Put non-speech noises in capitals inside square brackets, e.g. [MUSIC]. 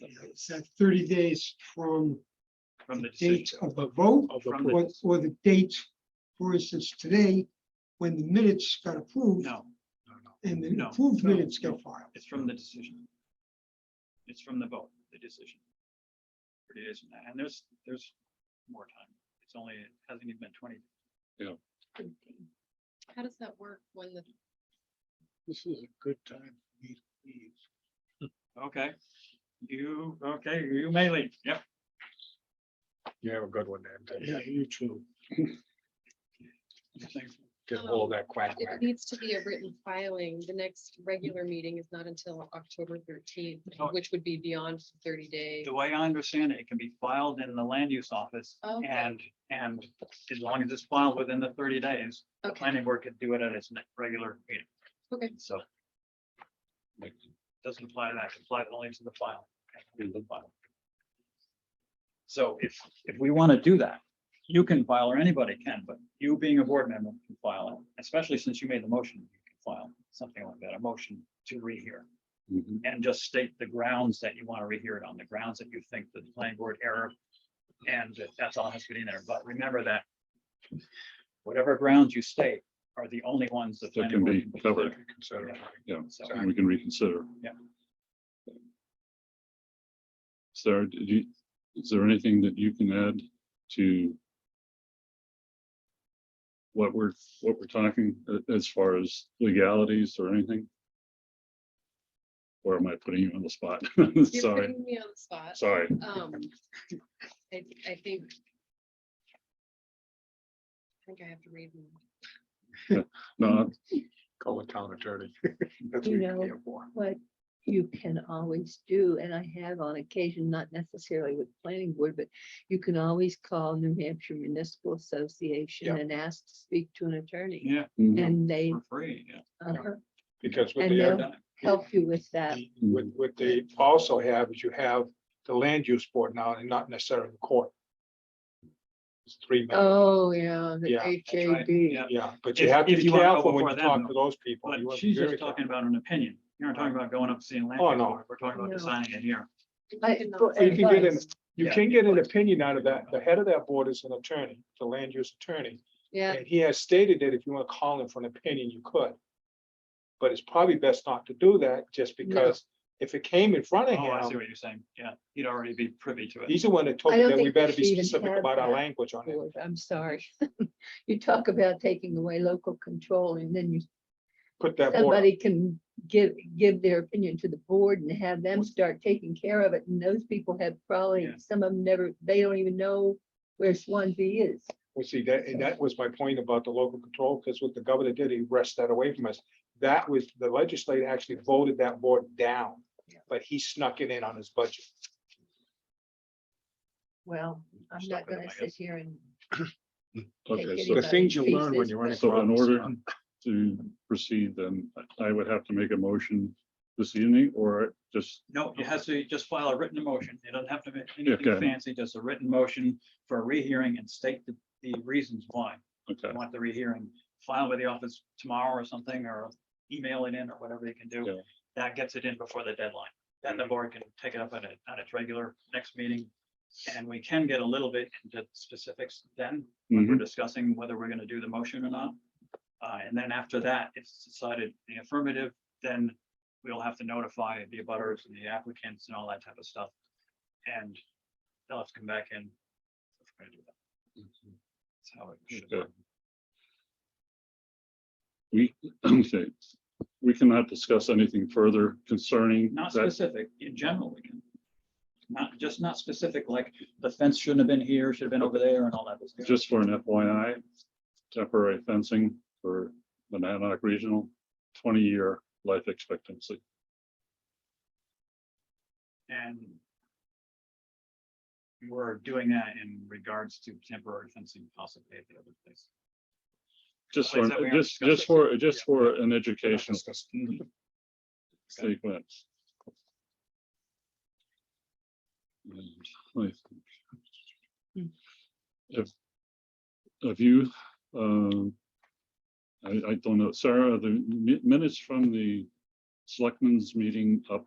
It's that thirty days from from the the date decision. of the vote, Of From or, the, or the date, for instance, today, when the minutes got approved No, no, no. and the no, approved no, minutes no. got filed. It's from the decision. It's from the vote, the decision. It is, and there's, there's more time. It's only, it hasn't even been twenty. How does that work when the, this is a good time. for me to leave. Okay. You, okay, you may leave. Yep. You have a good one, Dan. Yeah, you too. Thanks. Get all that quack it quack. needs to be a written filing, the next regular meeting is not until October thirteenth, Oh. which would be beyond thirty days. The way I understand it, it can be filed in the land use office Okay. and, and as long as it's filed within the thirty days, the Okay, planning board could do it at its next regular meeting. okay, So. Doesn't apply to that, it applies only to the file. okay, to the file. So if, if we want to do that, you can file or anybody can, but you being a board member can file it, especially since you made the motion, you can file something like that, a motion to rehear. Mhm. And just state the grounds that you want to rehear it on, the grounds that you think the planning board error. And that's all has to be in there, but remember that. Whatever grounds you state are the only ones that. That can be covered, Consider. yeah, So, and we can reconsider. Yeah. Sarah, did you, is there anything that you can add to what we're, what we're talking a- as far as legalities or anything? Or am I putting you on the spot? [LAUGHS] you're Sorry, putting me on the spot. sorry. Um, I, I think. I think I have to read. them. No, Call the town attorney. [LAUGHS] You know what you can always do, and I have on occasion, not necessarily with planning board, but you can always call New Hampshire Municipal Association Yeah. and ask to speak to an attorney. Yeah, mm, And they for free, yeah. uh-huh, Because what And they, they'll- have- done it. help you with that. what, what they also have is you have the land use board now and not necessarily the court. It's three, men- Oh, yeah, the Yeah, that's right, HAB. yeah. yeah, but you If- have to if be you wanna go careful when before you them, talk to those people. But You wanna be she's very just talking careful. about an opinion. You're not talking about going up and seeing land. Oh, use no. board. We're talking about No. designing it here. I I- did not for say You can get in, advice, you Yeah. can get an opinion out of that. The head of that board is an attorney, the land use attorney. Yeah, And he has stated that if you want to call him for an opinion, you could. But it's probably best not to do that just because if it came in front of Oh, I see him, what you're saying. Yeah, he'd already be privy to it. he's the one that told I me don't that we think better we should be even specific have about our that. language on it. board, I'm sorry. [LAUGHS] You talk about taking away local control and then you Put that board, somebody can give, give their opinion to the board and have them start taking care of it, and those people have probably, Yeah. some of them never, they don't even know where Swansea is. we see that, and that was my point about the local control, because what the governor did, he wrested that away from us. That was, the legislature actually voted that board down, but he snuck it in on his budget. Well, I'm Stuck not with them, gonna I sit here and, okay, Take so it The things you learn when you're So in order to proceed, then I would have to make a motion this evening or just, No, it has to just file a written motion. It doesn't have to be anything Okay. fancy, just a written motion for a rehearing and state the, the reasons why. okay, you want the rehearing, file with the office tomorrow or something, or email it in or whatever they can do. Yeah. That gets it in before the deadline. Then the board can pick it up at a, at its regular next meeting. And we can get a little bit into specifics then, Mm-hmm. when we're discussing whether we're gonna do the motion or not. Uh, and then after that, if it's decided in the affirmative, then we'll have to notify the abutters and the applicants and all that type of stuff. And they'll have to come back in. if we're gonna do that. That's how it should work. Okay. we, [CLEARS THROAT] okay, we cannot discuss anything further concerning Not that. specific, in general, we can. Not, just not specific, like the fence shouldn't have been here, should have been over there and all that. business. Just for an FYI, temporary fencing for the Nanoc Regional, twenty-year life expectancy. And. We're doing that in regards to temporary fencing possibly at the other place. Just Well, for, is that we aren't just, just discussing? for, just for an educational Discuss- sequence. And I think If, if you, um, I, I don't know, Sarah, are the mi- minutes from the selectmen's meeting up